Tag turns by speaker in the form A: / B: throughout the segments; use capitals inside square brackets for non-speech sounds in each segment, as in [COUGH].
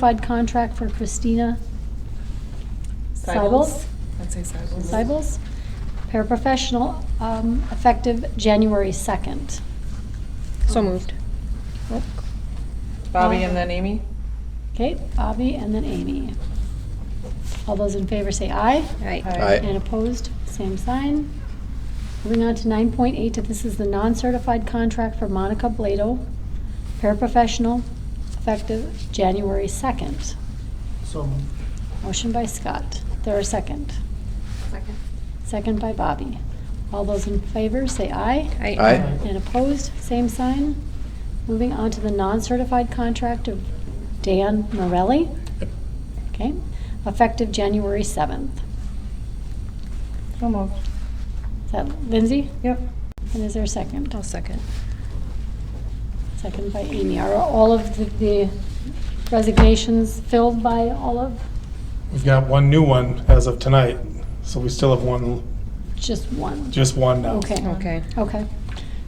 A: modified contract for Christina Seibels.
B: Seibels. I'd say Seibels.
A: Seibels, paraprofessional, um, effective January 2nd.
C: So moved.
A: Oop.
B: Bobby
A: Um,
B: and then Amy?
A: Okay, Bobby and then Amy. All those in favor say aye.
C: Aye.
D: Aye.
A: And opposed, same sign. Moving on to 9.8, this is the non-certified contract for Monica Blado, paraprofessional, effective January 2nd.
E: So moved.
A: Motion by Scott. There a second?
F: Second.
A: Second by Bobby. All those in favor, say aye.
D: Aye.
A: And opposed, same sign. Moving on to the non-certified contract of Dan Morelli.
D: Yep.
A: Okay, effective January 7th.
B: So moved.
A: Is that Lindsay?
B: Yep.
A: And is there a second?
C: I'll second.
A: Second by Amy. Are all of the- the resignations filled by all of,
E: We've got one new one as of tonight, so we still have one,
A: just one?
E: just one now.
A: Okay,
C: Okay.
A: okay.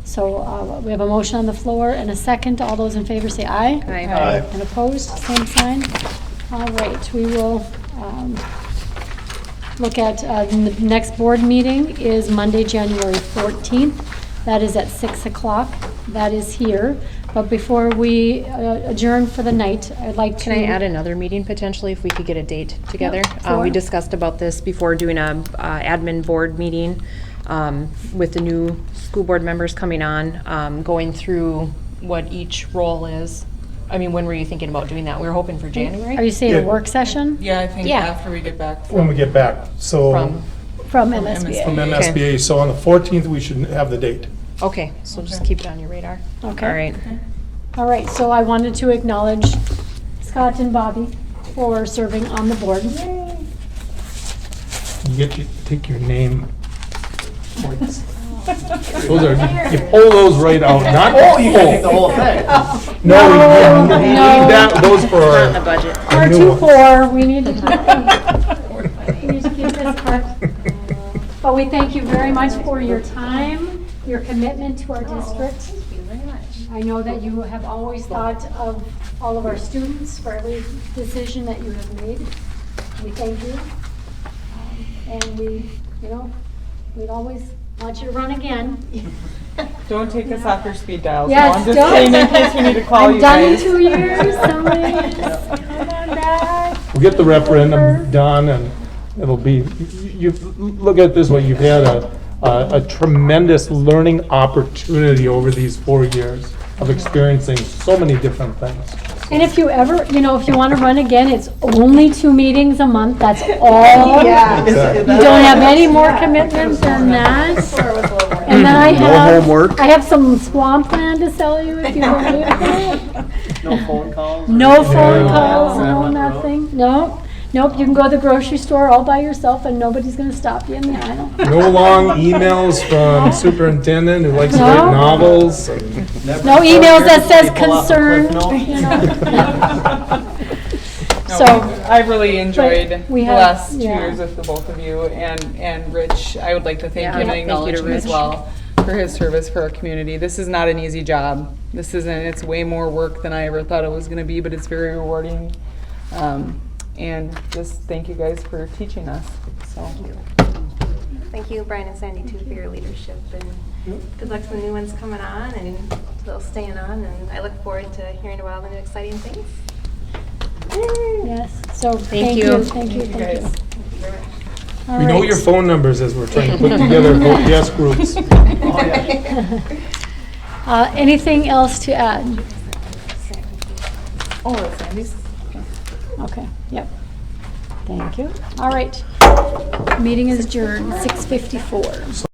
A: So uh, we have a motion on the floor and a second. All those in favor say aye.
C: Aye.
A: And opposed, same sign. All right, we will um, look at, uh, the next board meeting is Monday, January 14th. That is at 6 o'clock. That is here. But before we uh, adjourn for the night, I'd like to...
C: Can I add another meeting potentially if we could get a date together?
A: Yep,
C: Uh,
A: sure.
C: We discussed about this before doing a uh, admin board meeting um, with the new school board members coming on, um, going through what each role is. I mean, when were you thinking about doing that? We were hoping for
A: Are you
C: January
A: saying a
E: Yeah.
A: work session?
B: Yeah, I think
C: Yeah.
B: after we get back.
E: When we get back, so
C: from,
A: From
E: from
A: MSBA?
B: MSBA.
E: MSBA, so on the 14th, we should have the date.
C: okay, so just
B: Okay.
C: keep it on your radar.
A: Okay.
C: All right.
A: All right, so I wanted to acknowledge Scott and Bobby for serving on the board.
E: You get to take your name. points. [LAUGHS] Those are, you pull those
A: [LAUGHS]
E: right out, not all you
G: Oh, take the whole thing.
E: No, you
A: No,
E: you need
A: no.
E: that, those for.
C: Not in the budget.
A: R
E: new
A: two
E: one.
A: four, we need
E: [LAUGHS]
A: to, we need to keep this up. But we thank you very much for your time, your commitment to our district.
F: Thank you very much.
A: I know that you have always thought of all of our students for every decision that you have made. We thank you. Um, And we, you know, we'd always want you to run again.
B: [LAUGHS] Don't take us off your speed dial. so
A: Yes,
B: I'm just
A: don't.
B: saying in case we need to call
A: I'm
B: you
A: done in
B: guys.
A: two
B: [LAUGHS]
A: years, somebody, just come on back.
E: We'll get the referendum done, and it'll be, you, you- look at it this way, you've had a, a a tremendous learning opportunity over these four years of experiencing so many different things.
A: And if you ever, you know, if you want to run again, it's only two meetings a month, that's all.
E: Is it-
A: You don't have any more commitments than that. And then I
D: No
A: have-
D: homework.
A: I have some swamp land to sell you if you don't leave it.
G: No phone calls? or-
A: No phone
E: Yeah.
A: calls, no
G: Yeah.
A: nothing, no. Nope, you can go to the grocery store all by yourself and nobody's going to stop you in the aisle.
E: No long emails from superintendent who likes to write
A: No.
E: novels.
G: Never
A: No
G: phone
A: emails
G: here,
A: that says
G: people off the
A: concerned, [LAUGHS]
G: Cliff
A: you
B: [LAUGHS]
A: know.
G: Notes.
B: No,
A: So-
B: I really enjoyed
A: But
B: the
A: we have-
B: last two
A: yeah.
B: years with the both of you and, and Rich. I would like to thank
C: Yeah.
B: him and
C: Yeah, thank you
B: acknowledge
C: to
B: him as
C: Rich.
B: well for his service for our community. This is not an easy job. This isn't, it's way more work than I ever thought it was gonna be, but it's very rewarding. Um, and just thank you guys for teaching us, so.
F: Thank you, Brian and Sandy, too, for your leadership, and good luck to the new ones coming on, and to those staying on, and I look forward to hearing about all the new exciting things.
A: Yes, so thank
C: Thank
A: you,
C: you.
A: thank you, thank you.
B: guys.
A: All
E: We know
A: right.
E: your phone numbers as we're trying to put together vote yes groups.
A: Uh, Anything else to add?
B: Oh, it's Sandy's?
A: Okay, yep. Thank you. All right. Meeting is adjourned, 6:54.
E: So